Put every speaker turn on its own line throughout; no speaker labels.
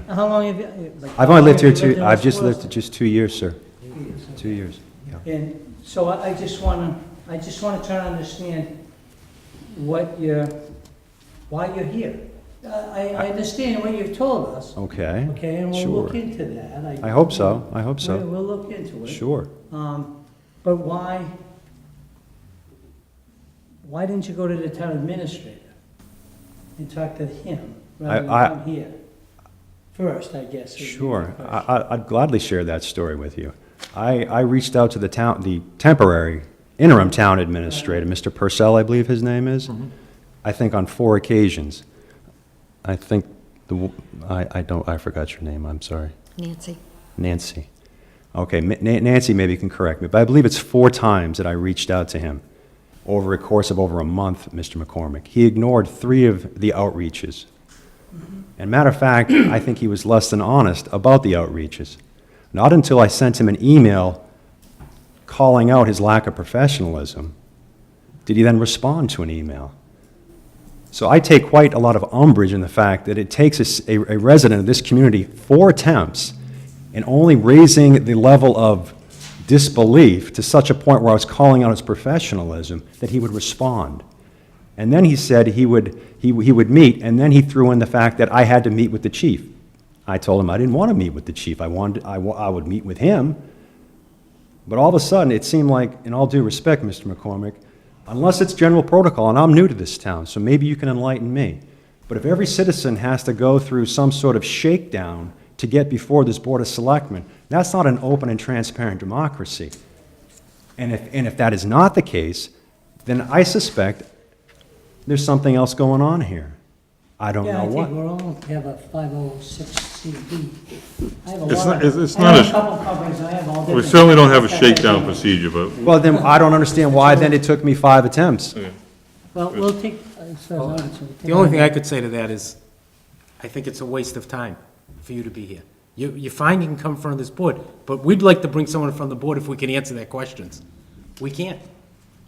How long have you? like,
I've only lived
how long
here
have you
two,
in
I've
this
just lived
world?
just two years, sir. Two years, yeah.
And so I, I just wanna, I just wanna try to understand what you're, why you're here. Uh, I, I understand what you've told us,
Okay.
okay, and we'll look
Sure.
into that.
I hope so, I hope so.
We'll, we'll look into it.
Sure.
Um, but why, why didn't you go to the town administrator and talk to him rather than
I- I-
come here? First, I guess. would be the
Sure, I,
question.
I- I'd gladly share that story with you. I, I reached out to the town, the temporary interim town administrator, Mr. Purcell, I believe his name is, I think on four occasions. I think, the, w- I, I don't, I forgot your name, I'm sorry.
Nancy.
Nancy. Okay, Ma- Na- Nancy maybe can correct me, but I believe it's four times that I reached out to him over a course of over a month, Mr. McCormick. He ignored three of the outreaches. And matter of fact, I think he was less than honest about the outreaches. Not until I sent him an email calling out his lack of professionalism did he then respond to an email. So I take quite a lot of umbrage in the fact that it takes a s- a, a resident of this community four attempts and only raising the level of disbelief to such a point where I was calling out his professionalism that he would respond. And then he said he would, he, he would meet, and then he threw in the fact that I had to meet with the chief. I told him I didn't want to meet with the chief. I wanted, I, wa- I would meet with him. But all of a sudden, it seemed like, in all due respect, Mr. McCormick, unless it's general protocol, and I'm new to this town, so maybe you can enlighten me. But if every citizen has to go through some sort of shakedown to get before this Board of Selectmen, that's not an open and transparent democracy. And if, and if that is not the case, then I suspect there's something else going on here. I don't
Yeah,
know
I think
what.
we're all have a five oh six CB. I have a
It's
lot
not-
of-
it's- it's
I have
not
a
a-
couple companies, I have all different.
We certainly don't have a
stuff I
shakedown
do.
procedure, but
Well, then, I don't understand why then it took me five attempts.
Well, we'll take, uh, so
Well,
long as we
The only thing I could say to that is, I think it's a waste of time for you to be here. You, you're fine, you can come in front of this board, but we'd like to bring someone from the board if we can answer their questions. We can't.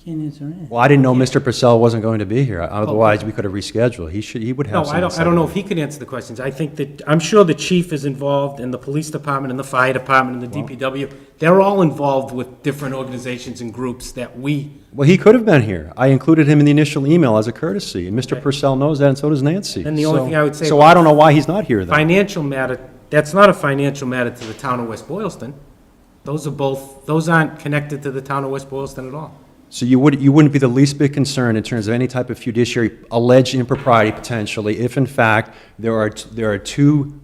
Can answer it.
Well, I didn't know Mr. Purcell wasn't going to be here, otherwise we could have rescheduled. He should, he would
Oh. No,
have
I
something to
don't,
say.
I don't know if he could answer the questions. I think that, I'm sure the chief is involved, and the police department, and the fire department, and the DPW. They're all involved with different organizations and groups that we,
Well, he could have been here. I included him in the initial email as a courtesy, and Mr. Purcell knows that, and so does Nancy.
Then the only
So-
thing I would say
So
about-
I don't know why he's not here, then.
financial matter, that's not a financial matter to the town of West Boylston. Those are both, those aren't connected to the town of West Boylston at all.
So you would, you wouldn't be the least bit concerned in terms of any type of fiduciary alleged impropriety potentially, if in fact there are, t- there are two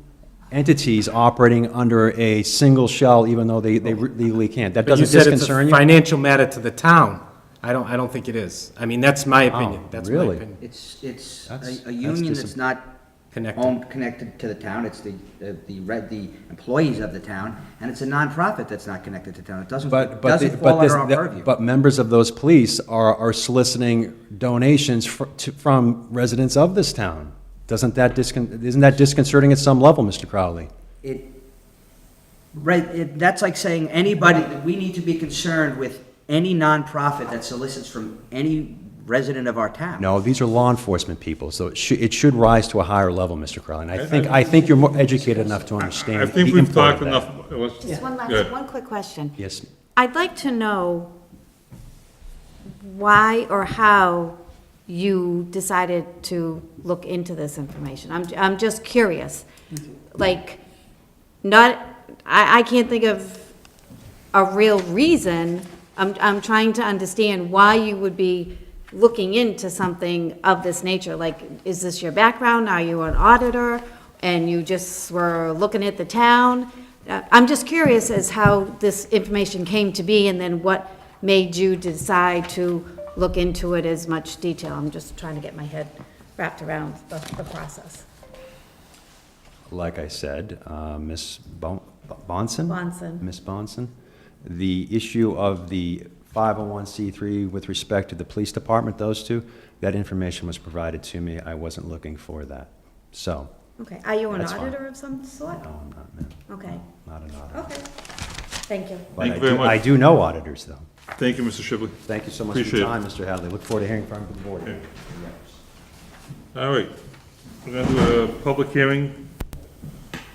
entities operating under a single shell, even though they, they legally can't. That
But you
doesn't
said it's
disconcern
a
you?
financial matter to the town. I don't, I don't think it is. I mean, that's my opinion. That's my
Oh, really?
opinion.
It's, it's
That's-
a, a
that's
union
dis-
that's not
Connected.
owned, connected to the town, it's the, the, the re- the employees of the town, and it's a nonprofit that's not connected to town, it doesn't,
But, but, the-
doesn't
but
fall
this,
under our
that-
purview.
but members of those police are, are soliciting donations fr- to, from residents of this town. Doesn't that discon, isn't that disconcerting at some level, Mr. Crowley?
It, right, it, that's like saying anybody, we need to be concerned with any nonprofit that solicits from any resident of our town.
No, these are law enforcement people, so it should, it should rise to a higher level, Mr. Crowley. And I think, I think you're more educated enough to understand
I think
the
we've
import of
talked
that.
enough. Let's-
Just one
Yeah.
last, one quick question.
Yes,
I'd like to know why or how you decided to look into this information. I'm, I'm just curious. Like, not, I, I can't think of a real reason. I'm, I'm trying to understand why you would be looking into something of this nature. Like, is this your background? Are you an auditor? And you just were looking at the town? Uh, I'm just curious as how this information came to be and then what made you decide to look into it as much detail. I'm just trying to get my head wrapped around the, the process.
like I said, uh, Ms. Bon- Bonson?
Bonson.
Ms. Bonson, the issue of the 501c3 with respect to the police department, those two, that information was provided to me. I wasn't looking for that. So,
Okay, are you an
That's fine.
auditor of some sort?
no, I'm not, ma'am.
Okay,
Not an auditor.
okay. Thank you.
But
Thank
I
you very
do-
much.
I do know auditors, though.
Thank you, Mr. Shipley.
Thank you so much for
Appreciate
your
it.
time, Mr. Hadley. Look forward to hearing from the board.
All right. We're going to do a public hearing